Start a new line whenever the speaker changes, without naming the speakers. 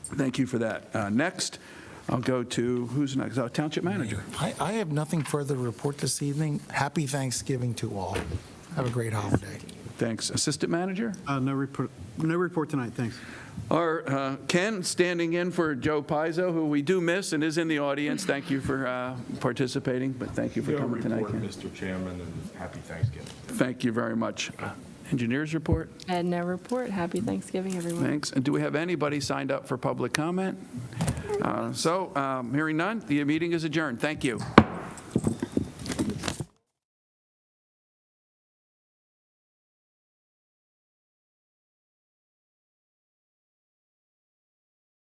Thank you for that. Uh, Next, I'll go to, who's next? Oh, Township Manager.
I, I have nothing further to report this evening. Happy Thanksgiving to all. Have a great holiday.
Thanks. Assistant Manager?
Uh, No report, no report tonight, thanks.
Or uh, Ken, standing in for Joe Pizzo, who we do miss and is in the audience. Thank you for uh, participating, but thank you for
No
coming tonight,
report,
Ken.
Mr. Chairman, and happy Thanksgiving.
Thank you very much. Uh, Engineers report?
And no report. Happy Thanksgiving, everyone.
Thanks. And do we have anybody signed up for public comment? Uh, So, um, hearing none, the meeting is adjourned. Thank you.